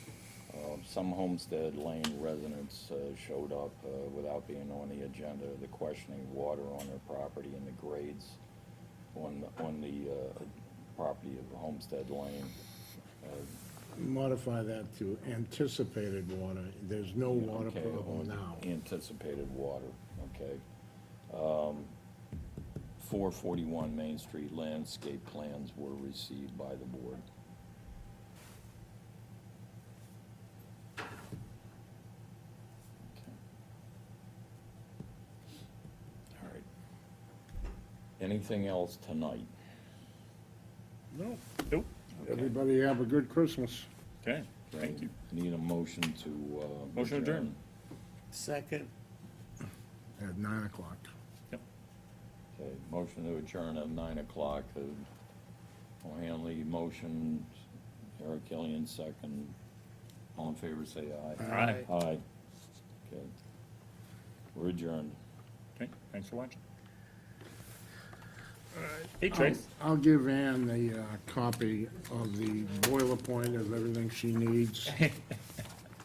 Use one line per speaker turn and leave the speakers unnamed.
Um, some Homestead Lane residents uh, showed up uh, without being on the agenda, the questioning water on their property and the grades on, the- on the uh, property of Homestead Lane.
Modify that to anticipated water. There's no water
Okay, on
problem now.
Anticipated water, okay. Um, Four forty-one Main Street landscape plans were received by the board. Okay. All right. Anything else tonight?
No,
Nope.
everybody have a good Christmas.
Okay, thank you.
Need a motion to, uh.
Motion to adjourn.
Second.
At nine o'clock.
Okay, motion to adjourn at nine o'clock. Uh, O'Hanley, motion, Eric Killian, second. All in favor, say aye.
All right,
Aye. Okay. We're adjourned.
okay, thanks for watching. Hey, Trace.
I'll give Ann the uh, copy of the boiler point of everything she needs.